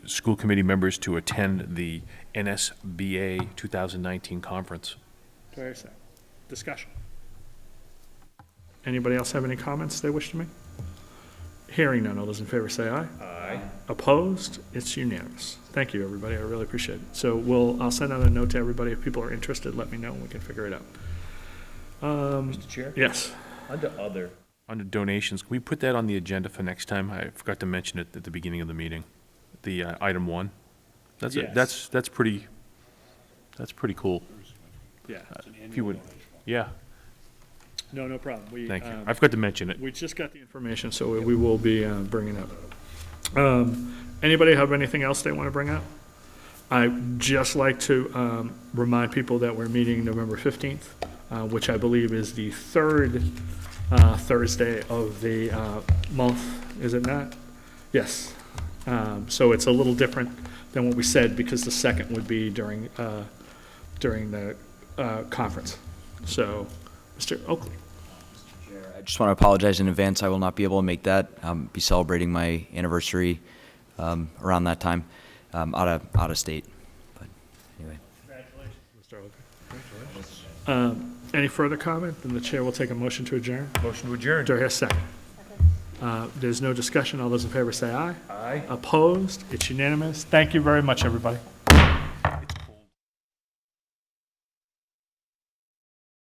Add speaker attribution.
Speaker 1: school committee members to attend the NSBA 2019 conference.
Speaker 2: Do I have a second? Discussion. Anybody else have any comments they wish to make? Hearing none, all those in favor say aye. Aye. Opposed? It's unanimous. Thank you, everybody, I really appreciate it. So we'll, I'll send out a note to everybody, if people are interested, let me know, and we can figure it out. Um,
Speaker 3: Mr. Chair,
Speaker 2: Yes,
Speaker 3: under other,
Speaker 1: Under donations, can we put that on the agenda for next time? I forgot to mention it at the beginning of the meeting, the uh, item one. That's, a-
Speaker 2: Yes.
Speaker 1: that's, that's pretty, that's pretty cool.
Speaker 2: yeah,
Speaker 1: If you would, yeah,
Speaker 2: Uh, no, no problem. We,
Speaker 1: thank you.
Speaker 2: um,
Speaker 1: I forgot to mention it.
Speaker 2: We just got the information, so we- we will be uh, bringing up. Um, Anybody have anything else they want to bring up? I'd just like to um, remind people that we're meeting November 15th, uh, which I believe is the third uh, Thursday of the uh, month, is it not? Yes. Um, So it's a little different than what we said, because the second would be during, uh, during the uh, conference. So, Mr. Oakley?
Speaker 4: I just want to apologize in advance. I will not be able to make that. Um, be celebrating my anniversary um, around that time, um, out of out of state. But anyway,
Speaker 2: Um, Any further comment? Then the chair will take a motion to adjourn.
Speaker 3: motion to adjourn.
Speaker 2: Do I hear a second? Uh, There's no discussion. All those in favor say aye.
Speaker 3: Aye.
Speaker 2: Opposed? It's unanimous. Thank you very much, everybody.